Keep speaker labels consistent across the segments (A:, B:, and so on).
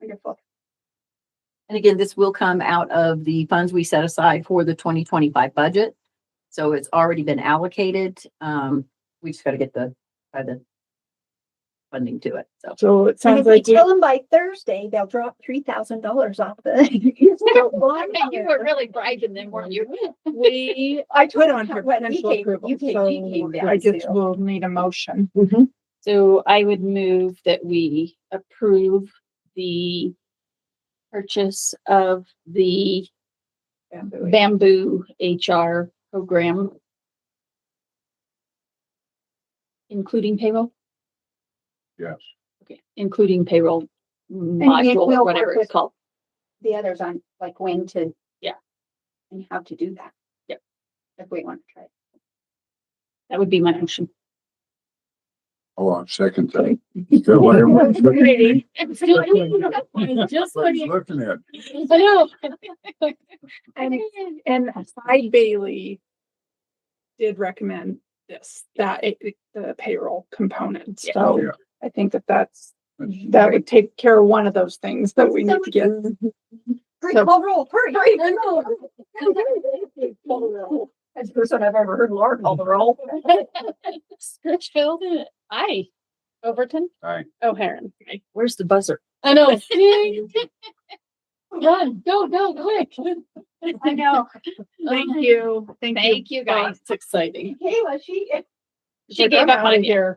A: Wonderful.
B: And again, this will come out of the funds we set aside for the twenty twenty-five budget. So it's already been allocated. Um, we just gotta get the, by the funding to it. So
C: So it
A: And
C: sounds
A: if we
C: like, we-
A: tell them by Thursday, they'll drop three thousand dollars off the.
D: really bribing them, weren't you?
A: We, I
C: put
A: told
C: on
A: her
C: for
A: what he
C: potential
A: came,
C: approval,
A: you came, he came
C: so
A: down
C: I just
A: to.
C: will need a motion.
D: So I would move that we approve the purchase of the bamboo HR program. Including payroll?
E: Yes.
D: Okay, including payroll
F: it
D: module,
F: will
D: or
F: work
D: whatever
F: with-
D: it's called.
F: the others on like when to.
D: Yeah.
F: And how to do that.
D: Yep.
F: If we want to try. it.
D: That would be my motion.
E: Oh, I'll second that. Is that what everyone's looking-
D: Just
E: everybody's looking at?
D: I know.
C: And, and I Bailey did recommend this, that, it- it- the payroll component.
D: Yeah.
C: So
E: Yeah.
C: I think that that's,
E: That's-
C: that would take care of one of those things that we need to get.
A: Hurry,
C: So-
A: call roll, hurry, hurry, hurry, roll.
F: That's the first one I've ever heard Laura call the roll.
D: Scritchfield, aye. Overton?
E: Aye.
D: O'Haron. aye.
B: where's the buzzer?
D: I know. Run, go, go, quick. Oh
F: I know.
C: Thank you.
D: Thank you, guys. It's exciting.
F: Kayla, she.
D: She gave up on you.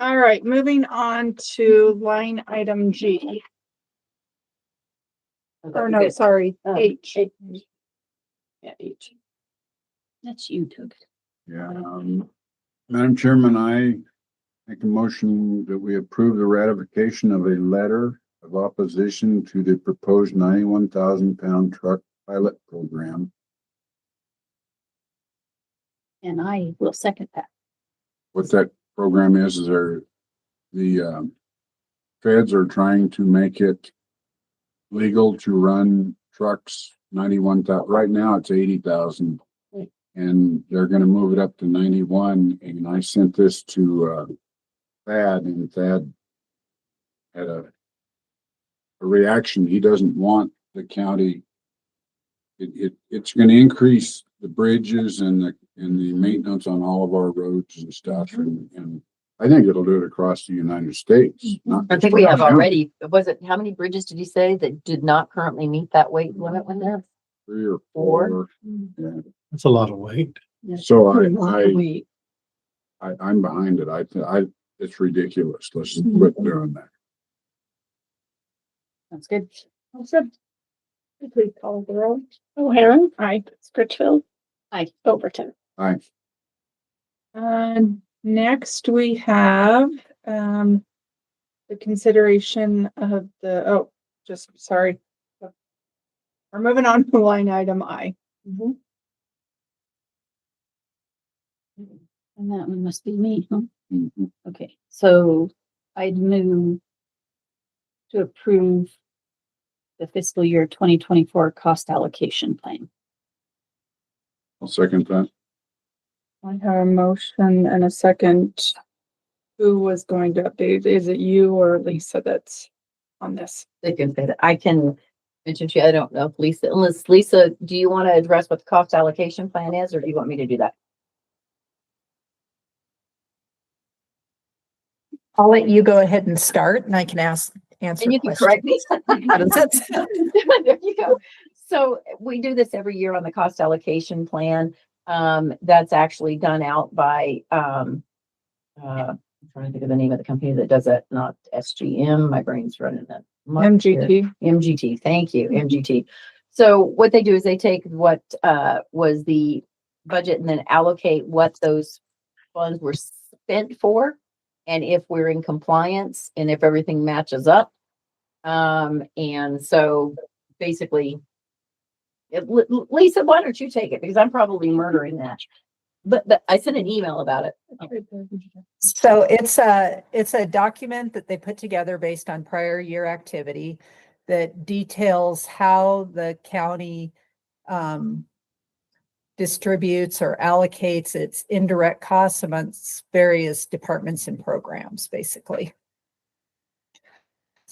C: All right, moving on to line item G, or no, sorry,
B: Uh,
C: H.
D: Yeah, each. That's you, Doug.
E: Yeah, um, Madam Chairman, I make a motion that we approve the ratification of a letter of opposition to the proposed ninety-one thousand pound truck pilot program
D: And I will second that.
E: what that program is, is they're, the, um, feds are trying to make it legal to run trucks ninety-one thou, right now it's eighty thousand.
D: Right.
E: And they're gonna move it up to ninety-one, and I sent this to, uh, Thad, and Thad had a a reaction, he doesn't want the county it, it, it's gonna increase the bridges and the, and the maintenance on all of our roads and stuff and, and I think it'll do it across the United States. not
B: I
E: just
B: think we
E: Brown
B: have
E: County.
B: already, was it, how many bridges did you say that did not currently meet that weight limit when they're?
E: Three or
B: Four.
E: four.
G: That's a lot of weight.
E: So I, I, I, I'm behind it. I, I, it's ridiculous. Let's quit doing that.
D: That's good.
C: Please call the roll.
D: O'Haron,
C: Aye.
D: Scritchfield. Aye. Overton.
E: I,
C: Uh, next we have, um, the consideration of the, oh, just, sorry. We're moving on to line item I.
D: And that one must be me, huh?
G: Mm-hmm.
E: Mhm.
D: Okay, so I'd move to approve the fiscal year twenty twenty-four cost allocation plan.
E: I'll second that.
C: I have a motion and a second. Who was going to update? Is it you or Lisa that's on this?
B: They can say that. I can mention to you, I don't know if Lisa, unless Lisa, do you want to address what the cost allocation plan is, or do you want me to do that?
H: I'll let you go ahead and start and I can ask, answer
B: And you can
H: questions.
B: correct me.
H: How does that sound?
B: There you go. So we do this every year on the cost allocation plan. Um, that's actually done out by, um, uh, I'm trying to think of the name of the company that does it, not SGM. My brain's running that. muck here.
C: MGT.
B: MGT, thank you, MGT. So what they do is they take what uh was the budget and then allocate what those funds were spent for. And if we're in compliance and if everything matches up. Um, and so basically. it- Li- Li- Lisa, why don't you take it? Because I'm probably murdering that. But but I sent an email about it.
H: So it's a, it's a document that they put together based on prior year activity that details how the county um distributes or allocates its indirect costs amongst various departments and programs, basically.